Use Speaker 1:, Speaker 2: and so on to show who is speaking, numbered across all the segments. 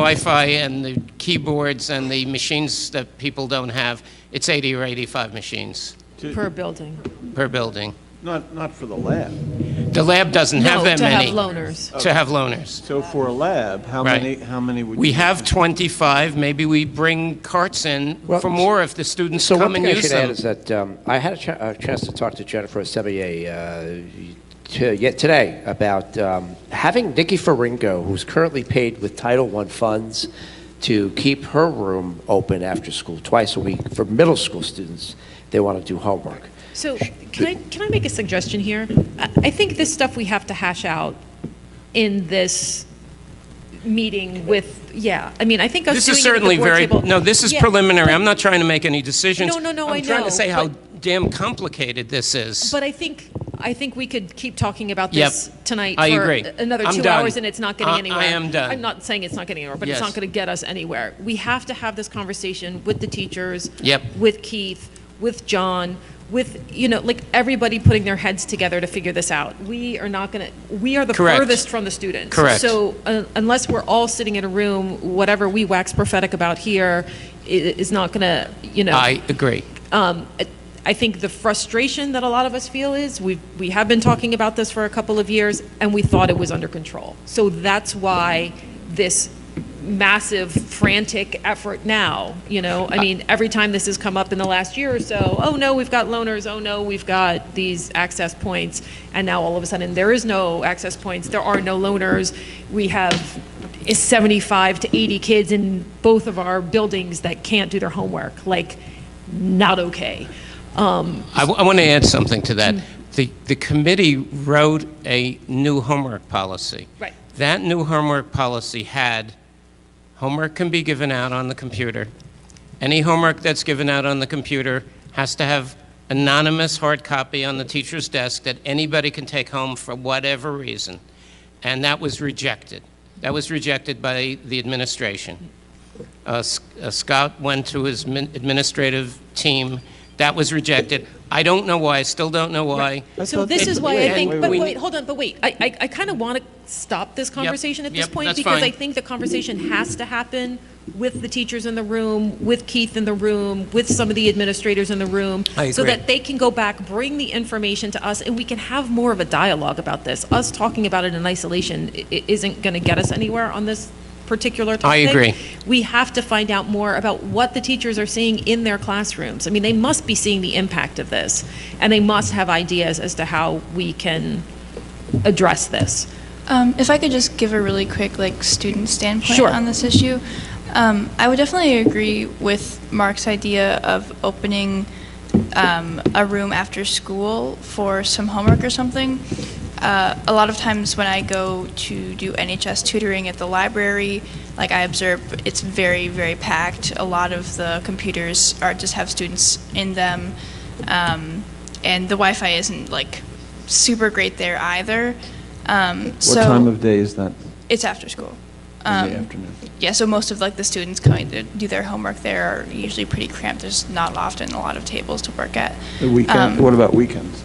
Speaker 1: Wi-Fi and the keyboards and the machines that people don't have, it's 80 or 85 machines
Speaker 2: To-
Speaker 3: per building.
Speaker 1: per building.
Speaker 2: Not, not for the lab.
Speaker 1: The lab doesn't have that many.
Speaker 3: No, to have loaners.
Speaker 1: To have loaners.
Speaker 2: So for a lab, how
Speaker 1: Right.
Speaker 2: many, how many would you?
Speaker 1: We have 25, maybe we bring carts in
Speaker 4: Well,
Speaker 1: for more if the students
Speaker 4: So one
Speaker 1: come and
Speaker 4: thing I
Speaker 1: use
Speaker 4: should add
Speaker 1: them.
Speaker 4: is that um, I had a, ch- a chance to talk to Jennifer Sevier uh, t- yet today about um, having Nikki Faringo, who's currently paid with Title I funds, to keep her room open after school twice a week for middle school students. They want to do homework.
Speaker 3: So can I, can I make a suggestion here? I I think this stuff we have to hash out in this meeting with, yeah, I mean, I think us
Speaker 1: This
Speaker 3: doing
Speaker 1: is
Speaker 3: it at the
Speaker 1: certainly
Speaker 3: board
Speaker 1: very,
Speaker 3: table-
Speaker 1: no, this is
Speaker 3: Yeah,
Speaker 1: preliminary.
Speaker 3: but-
Speaker 1: I'm not trying to make any decisions.
Speaker 3: No, no, no, I
Speaker 1: I'm trying
Speaker 3: know,
Speaker 1: to say how
Speaker 3: but-
Speaker 1: damn complicated this is.
Speaker 3: But I think, I think we could keep talking about
Speaker 1: Yep.
Speaker 3: this tonight
Speaker 1: I
Speaker 3: for
Speaker 1: agree.
Speaker 3: another
Speaker 1: I'm
Speaker 3: two
Speaker 1: done.
Speaker 3: hours, and it's not getting
Speaker 1: I- I
Speaker 3: anywhere.
Speaker 1: am done.
Speaker 3: I'm not saying it's not getting anywhere, but it's
Speaker 1: Yes.
Speaker 3: not going to get us anywhere. We have to have this conversation with the teachers,
Speaker 1: Yep.
Speaker 3: with Keith, with John, with you know, like everybody putting their heads together to figure this out. We are not going to. We are the
Speaker 1: Correct.
Speaker 3: furthest from the students.
Speaker 1: Correct.
Speaker 3: So uh, unless we're all sitting in a room, whatever we wax prophetic about here i- is not going to, you know
Speaker 1: I agree.
Speaker 3: um, I- I think the frustration that a lot of us feel is we we have been talking about this for a couple of years and we thought it was under control. So that's why this massive frantic effort now, you know, I mean, every time this has come up in the last year or so, oh no, we've got loners, oh no, we've got these access points, and now all of a sudden there is no access points, there are no loners, we have is 75 to 80 kids in both of our buildings that can't do their homework. Like, not okay. Um,
Speaker 1: I, want to add something to
Speaker 3: Mm.
Speaker 1: that. The, the committee wrote a new homework policy.
Speaker 3: Right.
Speaker 1: That new homework policy had, homework can be given out on the computer. Any homework that's given out on the computer has to have anonymous hard copy on the teacher's desk that anybody can take home for whatever reason. And that was rejected. That was rejected by the administration. Uh, S- uh, Scott went to his min- administrative team. That was rejected. I don't know why, I still don't know why.
Speaker 3: so this is why I
Speaker 1: And
Speaker 3: think, but
Speaker 1: we-
Speaker 3: wait, hold on, but wait, I, I, I kind of want to stop this conversation at this
Speaker 1: yep,
Speaker 3: point
Speaker 1: that's
Speaker 3: because I
Speaker 1: fine.
Speaker 3: think the conversation has to happen with the teachers in the room, with Keith in the room, with some of the administrators in the room.
Speaker 1: I
Speaker 3: So
Speaker 1: agree.
Speaker 3: that they can go back, bring the information to us, and we can have more of a dialogue about this. Us talking about it in isolation i- i- isn't going to get us anywhere on this particular
Speaker 1: I
Speaker 3: topic.
Speaker 1: agree.
Speaker 3: we have to find out more about what the teachers are seeing in their classrooms. I mean, they must be seeing the impact of this, and they must have ideas as to how we can address this.
Speaker 5: Um, if I could just give a really quick like student standpoint
Speaker 3: Sure.
Speaker 5: on this issue, um, I would definitely agree with Mark's idea of opening um, a room after school for some homework or something. Uh, a lot of times when I go to do NHS tutoring at the library, like I observe, it's very very packed. A lot of the computers are just have students in them, um, and the Wi-Fi isn't like super great there either. Um,
Speaker 2: What time of day is that?
Speaker 5: it's after school.
Speaker 2: In
Speaker 5: Um,
Speaker 2: the afternoon?
Speaker 5: Yeah, so most of like the students coming to do their homework there are usually pretty cramped. There's not often a lot of tables to work at.
Speaker 2: The weekend,
Speaker 5: Um,
Speaker 2: what about weekends?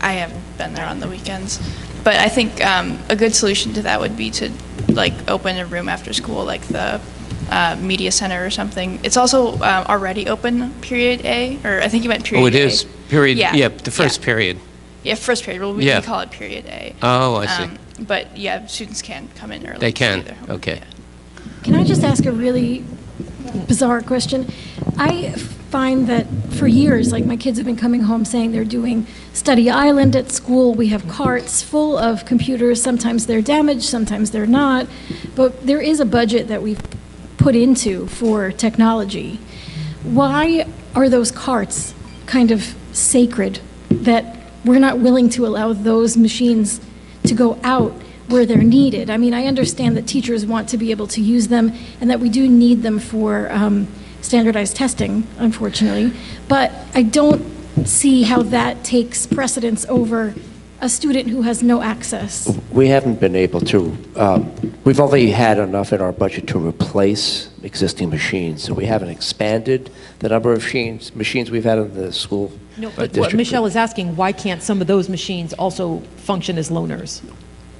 Speaker 5: I haven't been there on the weekends, but I think um, a good solution to that would be to like open a room after school, like the uh, media center or something. It's also um, already open period A, or I think you meant period.
Speaker 1: Oh, it
Speaker 5: A.
Speaker 1: is, period,
Speaker 5: Yeah.
Speaker 1: yeah, the first
Speaker 5: Yeah.
Speaker 1: period.
Speaker 5: Yeah, first period. Well, we
Speaker 1: Yeah.
Speaker 5: we call it period A. Um,
Speaker 1: Oh, I see.
Speaker 5: but yeah, students can come in early.
Speaker 1: They
Speaker 5: to do
Speaker 1: can,
Speaker 5: their homework,
Speaker 1: okay.
Speaker 5: yeah.
Speaker 6: Can I just ask a really bizarre question? I find that for years, like my kids have been coming home saying they're doing study island at school. We have carts full of computers. Sometimes they're damaged, sometimes they're not. But there is a budget that we've put into for technology. Why are those carts kind of sacred that we're not willing to allow those machines to go out where they're needed. I mean, I understand that teachers want to be able to use them and that we do need them for um, standardized testing, unfortunately, but I don't see how that takes precedence over a student who has no access.
Speaker 4: We haven't been able to, um, we've only had enough in our budget to replace existing machines, so we haven't expanded the number of machines, machines we've had in the school
Speaker 3: No,
Speaker 4: district.
Speaker 3: but what Michelle is asking, why can't some of those machines also function as loners?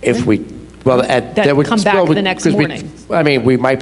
Speaker 4: If we, well, at.
Speaker 3: That
Speaker 4: would-
Speaker 3: come back
Speaker 4: well, we-
Speaker 3: the next
Speaker 4: 'cause we-
Speaker 3: morning.
Speaker 4: I mean, we might